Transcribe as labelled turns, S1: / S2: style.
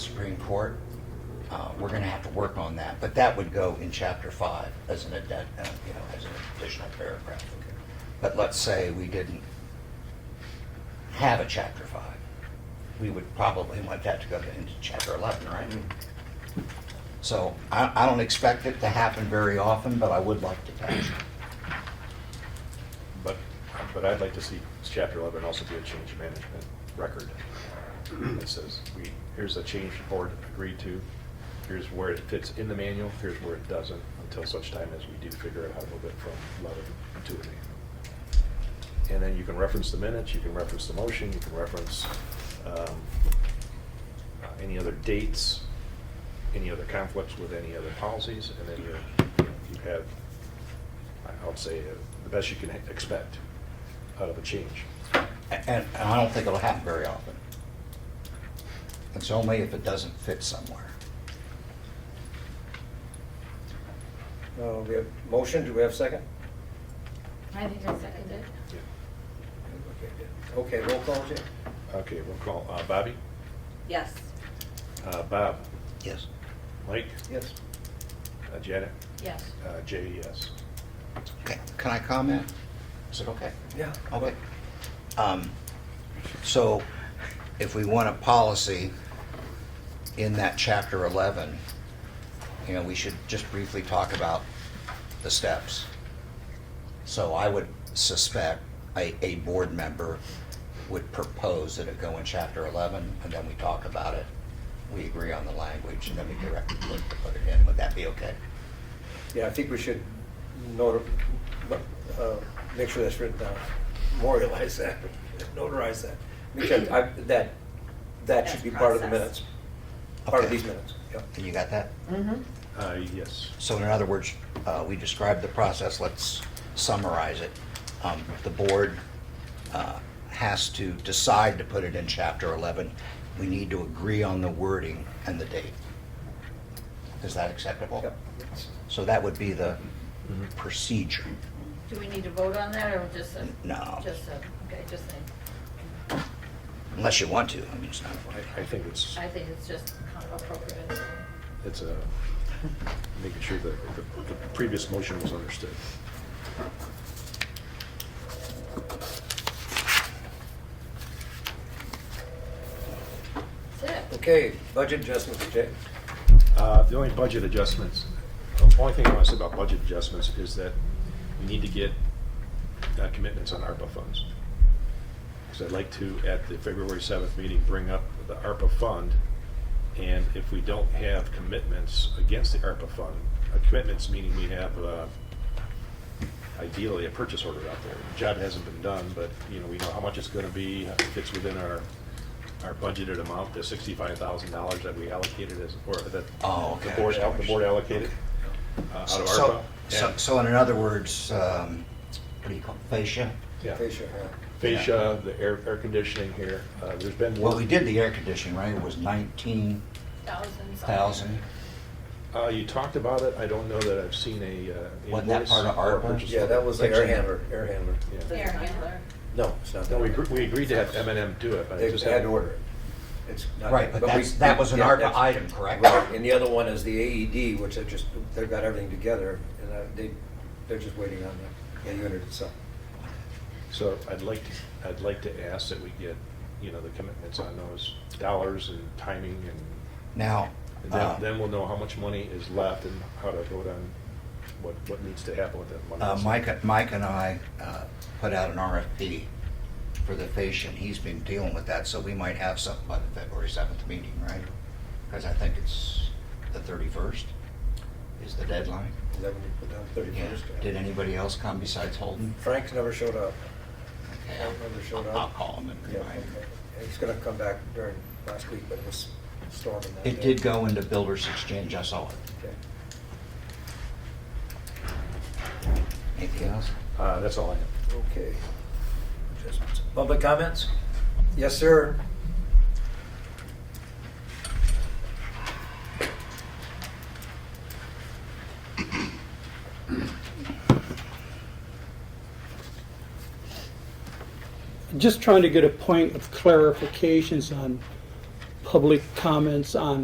S1: Supreme Court. Uh, We're going to have to work on that, but that would go in Chapter 5 as an, addend- uh, you know, as an additional paragraph. But let's say we didn't have a Chapter 5. We would probably want that to go to- into Chapter 11, right? So I I don't expect it to happen very often, but I would like to touch it.
S2: But, but I'd like to see chapter eleven also be a change management record. That says, we, here's a change the board agreed to, here's where it fits in the manual, here's where it doesn't, until such time as we do figure out how to move it from eleven to an eight. And then you can reference the minutes, you can reference the motion, you can reference, um, uh, any other dates, any other conflicts with any other policies, and then you, you know, you have, I would say, uh, the best you can expect out of a change.
S1: A- And and I don't think it'll happen very often. It's only if it doesn't fit somewhere.
S3: Uh, We have motion, do we have second?
S4: I think I seconded.
S2: Yeah.
S3: Okay, roll call, Jay?
S2: Okay, we'll call uh, Bobby.
S4: Yes.
S2: Uh, Bob,
S1: Yes.
S2: Mike,
S3: Yes.
S2: uh, Janet,
S4: Yes.
S2: uh, Jay, yes.
S1: Okay, can I comment? Is it okay?
S3: Yeah.
S1: Okay. Um, So if we want a policy in that chapter 11, you know, we should just briefly talk about the steps. So I would suspect a, a board member would propose that it go in chapter 11, and then we talk about it. We agree on the language, and then we direct the clerk to put it in. Would that be okay?
S3: Yeah, I think we should notar, uh, make sure that's written down, memorialize that, notarize that. Make sure, I- that, that should be part of the minutes, part of
S1: Okay.
S3: these minutes, yeah.
S1: And you got that?
S4: Mm-hmm.
S2: Uh, Yes.
S1: So in other words, uh, we described the process, let's summarize it. Um, The board uh, has to decide to put it in Chapter 11. We need to agree on the wording and the date. Is that
S2: Oh.
S1: acceptable?
S3: Yep.
S1: So that would be the
S2: Mm-hmm.
S1: procedure.
S4: Do we need to vote on that or just a?
S1: No.
S4: Just a, okay, just a,
S1: Unless you want to, I mean, it's not,
S2: I, I think it's,
S4: I think it's just appropriate.
S2: it's a, making sure that the the previous motion was understood.
S4: That's it.
S3: Okay, budget adjustments, Jay?
S2: Uh, The only budget adjustments, the only thing I want to say about budget adjustments is that we need to get uh, commitments on ARPA funds. Because I'd like to, at the February 7th meeting, bring up the ARPA fund, and if we don't have commitments against the ARPA fund, uh, commitments meaning we have uh, ideally a purchase order out there. The Job hasn't been done, but, you know, we know how much it's going to be, if it's within our, our budgeted amount, the $65,000 that we allocated as, or that
S1: oh, okay.
S2: the board, al- the board allocated uh, out of
S1: So-
S2: ARPA.
S1: So,
S2: Yeah.
S1: so in other words, um, what do you call it, fascia?
S2: Yeah.
S3: Fascia, yeah.
S2: Fascia, the air, air conditioning here, uh, there's been
S1: Well, we
S2: work.
S1: did the air conditioning, right? It was 19,000?
S4: Thousands.
S2: Uh, you talked about it, I don't know that I've seen a uh, invoice.
S1: Wasn't that part of
S2: or
S1: ARPA?
S2: purchase
S3: Yeah, that was the air
S2: order.
S3: handler, air handler.
S2: Yeah.
S4: Air handler.
S3: No, it's not.
S2: No, we
S3: that.
S2: agreed, we agreed to have M and M do it, but I
S3: They
S2: just
S3: had
S2: haven't.
S3: to order it. It's not-
S1: Right, but that's,
S3: we-
S1: that was an
S3: yeah,
S1: ARPA
S3: that's-
S1: item, correct?
S3: Right, and the other one is the AED, which they're just, they've got everything together, and uh, they, they're just waiting on the, the unit itself.
S2: So I'd like, to I'd like to ask that we get, you know, the commitments on those dollars and timing and
S1: Now,
S2: and
S1: uh,
S2: then, then we'll know how much money is left and how to vote on what, what needs to happen with that money.
S1: uh, Mike, Mike and I uh, put out an RFP for the fascia, and he's been dealing with that, so we might have something by the February 7th meeting, right? Because I think it's the 31st is the deadline.
S3: Is that when you put down
S1: Yeah.
S3: thirty-first?
S1: Did anybody else come besides Holden?
S3: Frank's never showed up.
S1: Okay,
S3: Frank never showed
S1: I'll
S3: up.
S1: call him and
S3: Yeah,
S1: remind him.
S3: okay. He's gonna come back during last week, but it was storming that day.
S1: It did go into Builders Exchange, I saw it.
S3: Okay.
S1: Anything else?
S2: Uh, that's all I have.
S3: Okay. Adjustments. Public comments? Yes, sir.
S5: just trying to get a point of clarifications on public comments on